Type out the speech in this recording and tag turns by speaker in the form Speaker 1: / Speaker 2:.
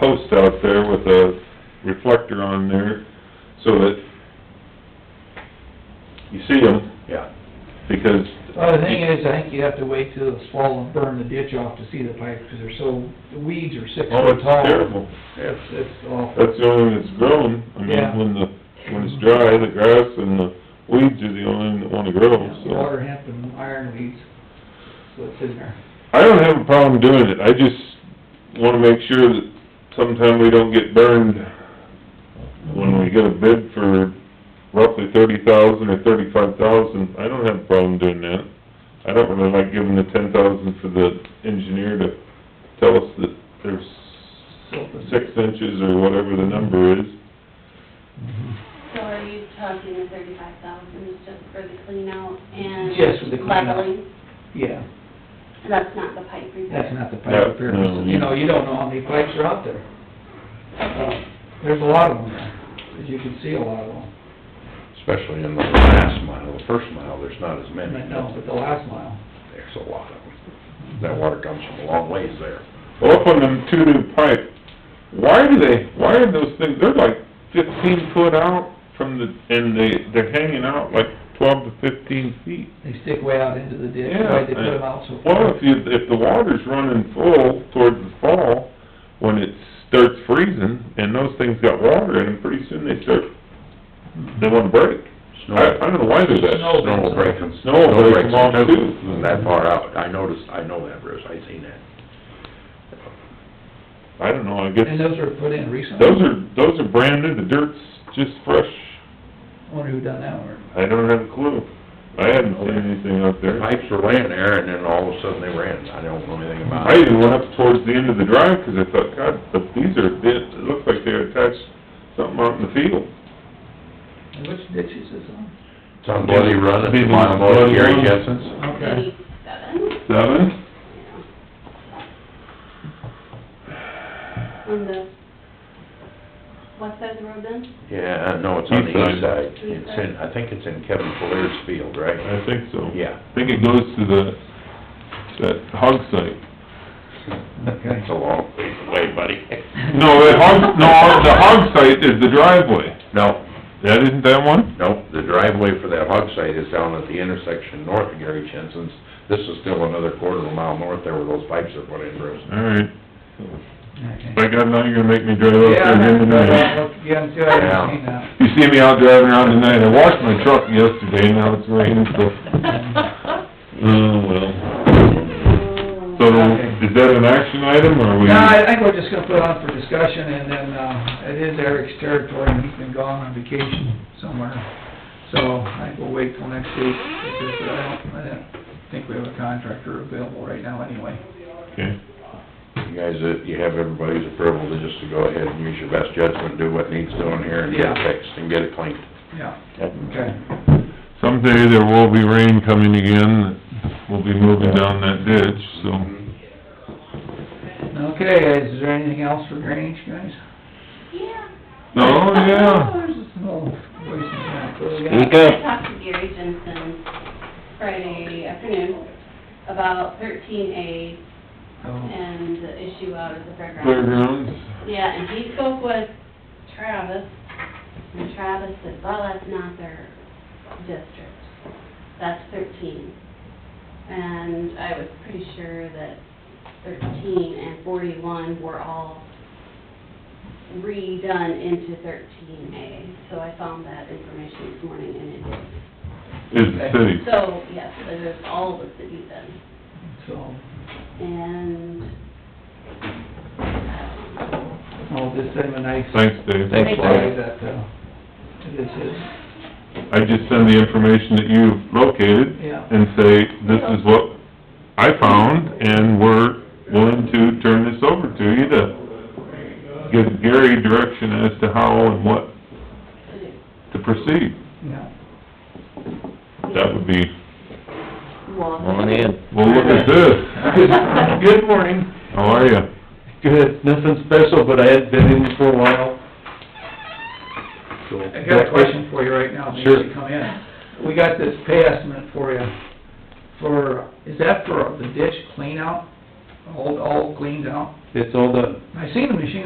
Speaker 1: post out there with a reflector on there, so that you see them,
Speaker 2: Yeah.
Speaker 1: because...
Speaker 3: Well, the thing is, I think you have to wait till it's fall and burn the ditch off to see the pipe, because they're so, the weeds are six
Speaker 1: Oh,
Speaker 3: foot
Speaker 1: it's
Speaker 3: tall.
Speaker 1: terrible.
Speaker 3: It's, it's awful.
Speaker 1: That's the only one that's grown. I
Speaker 3: Yeah.
Speaker 1: mean, when the, when it's dry, the grass and the weeds are the only one that wanna grow, so...
Speaker 3: Water hemp and iron weeds, so it's in there.
Speaker 1: I don't have a problem doing it, I just wanna make sure that sometime we don't get burned when we get a bid for roughly thirty thousand or thirty-five thousand, I don't have a problem doing that. I don't really like giving the ten thousand for the engineer to tell us that there's six inches or whatever the number is. Mm-hmm.
Speaker 4: So are you talking the thirty-five thousand is just for the clean out and?
Speaker 3: Just for the clean out.
Speaker 4: Leveling,
Speaker 3: Yeah,
Speaker 4: that's not the pipe repair?
Speaker 3: that's not the pipe repair,
Speaker 1: No, no.
Speaker 3: you know, you don't know how many pipes are out there. Uh, There's a lot of them there, as you can see a lot of them,
Speaker 2: Especially in the last mile, the first mile, there's not as many.
Speaker 3: but no, but the last mile.
Speaker 2: There's a lot of them. That water comes from a long ways there.
Speaker 1: Well, up on them two new pipe, why do they, why are those things, they're like fifteen foot out from the, and they, they're hanging out like twelve to fifteen feet.
Speaker 3: They stick way out into the ditch,
Speaker 1: Yeah.
Speaker 3: why they put them out so
Speaker 1: Well,
Speaker 3: far.
Speaker 1: if you, if the water's running full towards the fall, when it starts freezing, and those things got water in them, pretty soon they start, they wanna break. I, I don't know why they're that.
Speaker 3: Snow
Speaker 2: Snow will break them.
Speaker 1: Snow will break them off
Speaker 2: them
Speaker 1: too.
Speaker 2: From that far out. I noticed, I know that, Bruce. I seen that.
Speaker 1: I don't know, I guess,
Speaker 3: And those were put in recently.
Speaker 1: those are, those are brand new, the dirt's just fresh,
Speaker 3: Wonder who done that work.
Speaker 1: I don't have a clue. I hadn't seen anything out
Speaker 2: The
Speaker 1: there.
Speaker 2: pipes were laying there and then all of a sudden they ran. I don't know anything about
Speaker 1: I
Speaker 2: it.
Speaker 1: even went up towards the end of the drive, 'cause I thought, God, but these are, it looks like they're attached something out in the field.
Speaker 3: And which ditch is this on?
Speaker 2: It's on Bloody Run,
Speaker 1: Busy
Speaker 2: it's mile below
Speaker 1: Bloody
Speaker 2: Gary
Speaker 1: Run.
Speaker 2: Jensen's.
Speaker 4: Eighty-seven,
Speaker 1: Seven?
Speaker 4: yeah. On the west side of the road then?
Speaker 2: Yeah, no, it's on the east
Speaker 1: East
Speaker 2: side.
Speaker 1: side.
Speaker 2: It's in, I think it's in Kevin Flair's field, right?
Speaker 1: I think so.
Speaker 2: Yeah.
Speaker 1: I think it goes to the, that hog site.
Speaker 3: Okay.
Speaker 2: It's a long ways away, buddy.
Speaker 1: No, the hog, no, the hog site is the driveway.
Speaker 2: No,
Speaker 1: That isn't that one?
Speaker 2: Nope, the driveway for that hog site is down at the intersection north of Gary Jensen's. This is still another quarter of a mile north there where those pipes are put in, Bruce.
Speaker 1: All right.
Speaker 3: Okay.
Speaker 1: By God, now you're gonna make me drive out
Speaker 3: Yeah,
Speaker 1: there
Speaker 3: I
Speaker 1: again
Speaker 3: haven't,
Speaker 1: tonight.
Speaker 3: yeah, until I haven't seen that.
Speaker 1: You see me out driving around tonight, I washed my truck yesterday, now it's raining, so...
Speaker 3: Mm-hmm.
Speaker 1: Oh, well. So, is that an action item, or we...
Speaker 3: No, I think we're just gonna put on for discussion, and then, uh, it is Eric's territory, and he's been gone on vacation somewhere. So I think we'll wait till next week, because I don't, I don't think we have a contractor available right now anyway.
Speaker 1: Okay.
Speaker 2: You guys, uh, you have everybody's approval to just to go ahead and use your best judgment, do what needs doing here and get it
Speaker 3: Yeah.
Speaker 2: fixed and get it cleaned.
Speaker 3: Yeah, okay.
Speaker 1: Someday there will be rain coming again, we'll be moving down that ditch, so...
Speaker 2: Mm-hmm.
Speaker 3: Okay, is there anything else for drainage, guys?
Speaker 4: Yeah.
Speaker 1: Oh, yeah.
Speaker 3: There's a small voice in that. What do we got?
Speaker 5: Speak
Speaker 4: I
Speaker 5: up.
Speaker 4: talked to Gary Jensen Friday afternoon about thirteen A
Speaker 3: Oh,
Speaker 4: and the issue out of the fairgrounds.
Speaker 1: Playgrounds,
Speaker 4: Yeah, and he spoke with Travis, and Travis said, well, that's not their district, that's thirteen. And I was pretty sure that thirteen and forty-one were all redone into thirteen A, so I found that information this morning, and it,
Speaker 1: is the city.
Speaker 4: so, yes, it is all the city then.
Speaker 3: So,
Speaker 4: And,
Speaker 3: I'll just send him oh, a nice
Speaker 1: Thanks, Dave.
Speaker 5: Thanks,
Speaker 3: reply
Speaker 5: Dave.
Speaker 3: that, uh, this is,
Speaker 1: I just send the information that you've located
Speaker 3: Yeah.
Speaker 1: and say, this is what I found, and we're willing to turn this over to you to give Gary direction as to how and what to proceed.
Speaker 3: yeah.
Speaker 1: That would be,
Speaker 5: On in.
Speaker 1: well, look at this.
Speaker 5: Good morning.
Speaker 1: How are ya?
Speaker 5: Good, nothing special, but I had been in for a while.
Speaker 3: I got a question for you right now, before you come in. We got this pay estimate for you, for, is that for the ditch clean out, all, all cleaned out?
Speaker 5: It's all done.
Speaker 3: I seen the machine